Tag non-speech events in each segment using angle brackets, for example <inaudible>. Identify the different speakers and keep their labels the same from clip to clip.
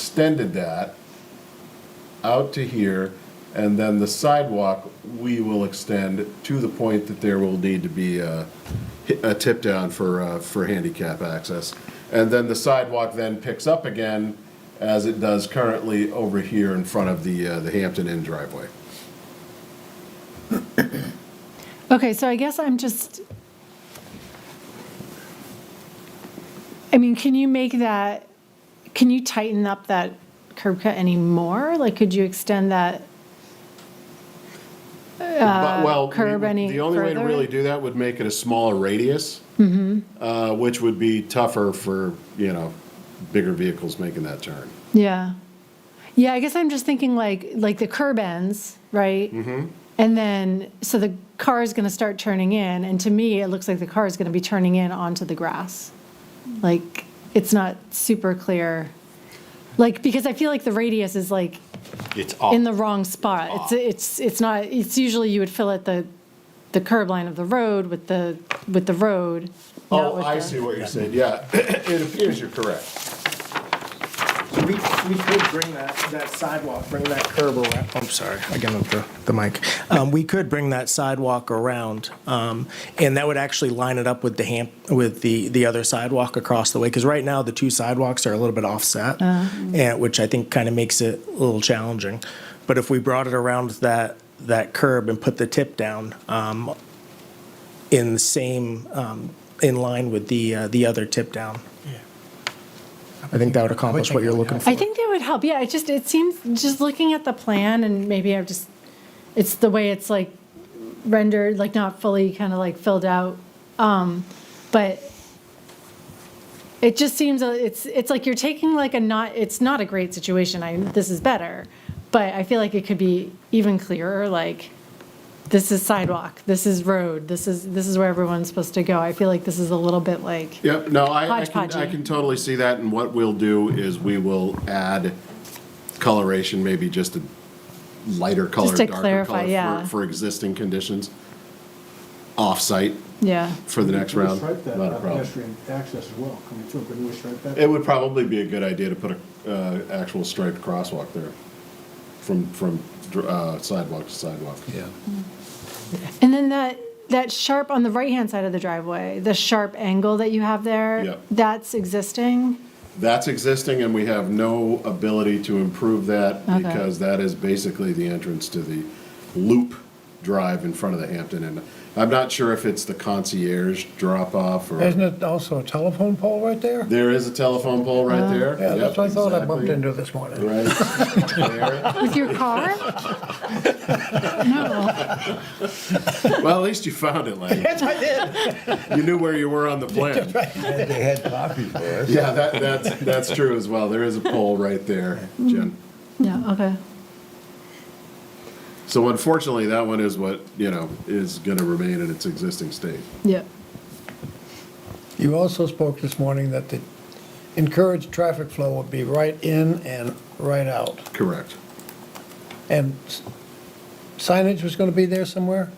Speaker 1: extended that out to here, and then the sidewalk, we will extend to the point that there will need to be a, a tip down for, uh, for handicap access. And then the sidewalk then picks up again, as it does currently over here in front of the, uh, the Hampton Inn driveway.
Speaker 2: Okay, so I guess I'm just, I mean, can you make that, can you tighten up that curb cut anymore? Like, could you extend that?
Speaker 1: But- well, we
Speaker 2: Uh, curb
Speaker 1: would-
Speaker 2: any
Speaker 1: The only way to
Speaker 2: further? Mm-hmm.
Speaker 1: really do that would make it a smaller radius, uh, which would be tougher for, you know, bigger vehicles making that turn.
Speaker 2: Yeah. Yeah, I guess I'm just thinking like, like the curb ends, right? Mm-hmm. And then, so the car is going to start turning in, and to me, it looks like the car is going to be turning in onto the grass. Like, it's not super clear. Like, because I feel like the radius is like
Speaker 3: It's up.
Speaker 2: in the wrong spot. It's, it's, it's not, it's usually you would fill at the, the curb line of the road with the, with the road. not
Speaker 1: Oh,
Speaker 2: with
Speaker 1: I
Speaker 2: the-
Speaker 1: see what you're saying, yeah, <coughs> it appears you're correct.
Speaker 4: We, we could bring that, that sidewalk, bring that curb around, I'm sorry, I got up the, the mic. Um, we could bring that sidewalk around, um, and that would actually line it up with the ham, with the, the other sidewalk across the way, because right now the two sidewalks are a little bit offset, and, which I think kind of makes it a little challenging. But if we brought it around that, that curb and put the tip down, um, in the same, um, in line with the, uh, the other tip down. I think that would accomplish what you're looking for.
Speaker 2: I think that would help. Yeah, it just it seems just looking at the plan and maybe I've just it's the way it's like rendered, like not fully kind of like filled out. Um, but it just seems a- it's it's like you're taking like a not it's not a great situation. I this is better, but I feel like it could be even clearer. Like this is sidewalk, this is road, this is this is where everyone's supposed to go. I feel like this is a little bit like
Speaker 1: Yep, no, I, I can, I
Speaker 2: Hodgepodgey.
Speaker 1: can totally see that, and what we'll do is we will add coloration, maybe just a lighter color,
Speaker 2: Just to
Speaker 1: darker
Speaker 2: clarify,
Speaker 1: color
Speaker 2: yeah.
Speaker 1: for, for existing conditions. Off-site
Speaker 2: yeah.
Speaker 1: for the next round,
Speaker 5: Stripe that
Speaker 1: not a
Speaker 5: uh,
Speaker 1: problem.
Speaker 5: pedestrian access as well, coming through, couldn't we stripe that?
Speaker 1: It would probably be a good idea to put a, uh, actual striped crosswalk there, from, from, uh, sidewalk to sidewalk. Yeah.
Speaker 2: And then that, that sharp on the right-hand side of the driveway, the sharp angle that you have there?
Speaker 1: Yep.
Speaker 2: That's existing?
Speaker 1: That's existing, and we have no ability to improve that
Speaker 2: Okay.
Speaker 1: because that is basically the entrance to the loop drive in front of the Hampton Inn. I'm not sure if it's the concierge drop-off
Speaker 6: Isn't
Speaker 1: or,
Speaker 6: it also a telephone pole right there?
Speaker 1: there is a telephone pole right there.
Speaker 6: Yeah, that's what I thought I bumped
Speaker 1: Yep,
Speaker 6: into this morning.
Speaker 1: exactly. Right.
Speaker 2: With your car? No.
Speaker 1: There. Well, at least you found it, Lang.
Speaker 6: Yes, I did.
Speaker 1: You knew where you were on the plan.
Speaker 7: They had coffee for us.
Speaker 1: Yeah, that, that's, that's true as well. There is a pole right there, Jen.
Speaker 2: Yeah, okay.
Speaker 1: So unfortunately, that one is what, you know, is gonna remain in its existing state.
Speaker 2: Yep.
Speaker 6: You also spoke this morning that the encouraged traffic flow would be right in and right out.
Speaker 1: Correct.
Speaker 6: And s- signage was going to be there somewhere?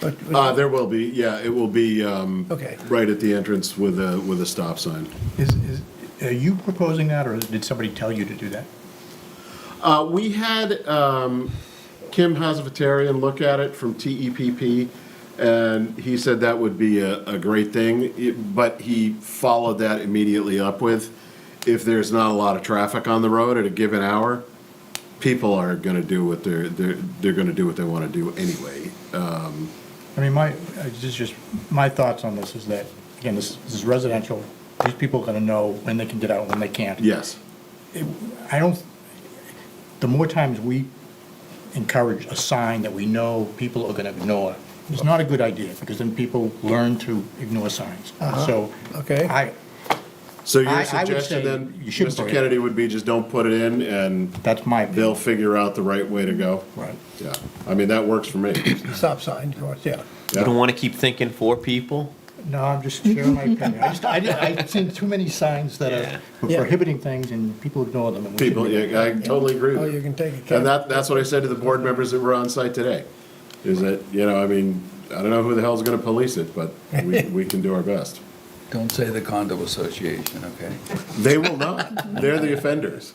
Speaker 6: But-
Speaker 1: Uh, there will be, yeah, it will be, um,
Speaker 6: Okay.
Speaker 1: right at the entrance with a, with a stop sign.
Speaker 3: Is, is, are you proposing that, or did somebody tell you to do that?
Speaker 1: Uh, we had, um, Kim Hazavatarian look at it from TEPP, and he said that would be a, a great thing, it- but he followed that immediately up with, if there's not a lot of traffic on the road at a given hour, people are gonna do what they're, they're, they're gonna do what they wanna do anyway.
Speaker 3: I mean, my, uh, this is just, my thoughts on this is that, again, this this is residential. These people are gonna know when they can get out and when they can't.
Speaker 1: Yes,
Speaker 3: I don't, the more times we encourage a sign that we know people are gonna ignore, it's not a good idea, because then people learn to ignore signs. So.
Speaker 6: Uh-huh. okay.
Speaker 3: I,
Speaker 1: so your
Speaker 3: I- I would
Speaker 1: suggestion
Speaker 3: say
Speaker 1: then,
Speaker 3: you shouldn't
Speaker 1: Mr.
Speaker 3: put it.
Speaker 1: Kennedy, would be just don't put it in and
Speaker 3: that's my.
Speaker 1: they'll
Speaker 3: opinion.
Speaker 1: figure out the right way to go.
Speaker 3: Right.
Speaker 1: Yeah, I mean, that works for me.
Speaker 6: Stop sign, of course, yeah.
Speaker 8: You
Speaker 1: Yeah.
Speaker 8: don't want to keep thinking for people?
Speaker 3: No, I'm just sharing my opinion. I just, I, did- I've seen too many signs that are
Speaker 6: Yeah.
Speaker 3: prohibiting things and people ignore them. and
Speaker 1: <coughs>
Speaker 3: we
Speaker 1: People,
Speaker 3: shouldn't.
Speaker 1: yeah, I totally agree
Speaker 6: Oh,
Speaker 1: with
Speaker 6: you
Speaker 1: you.
Speaker 6: can take a
Speaker 1: And
Speaker 6: cab. <laughs>
Speaker 1: that, that's what I said to the board members that were on site today,
Speaker 3: <laughs>
Speaker 1: is that, you know, I mean, I don't know who the hell's gonna police it, but we, we can do our best.
Speaker 7: Don't say the condo association, okay?
Speaker 1: They will not. They're the offenders.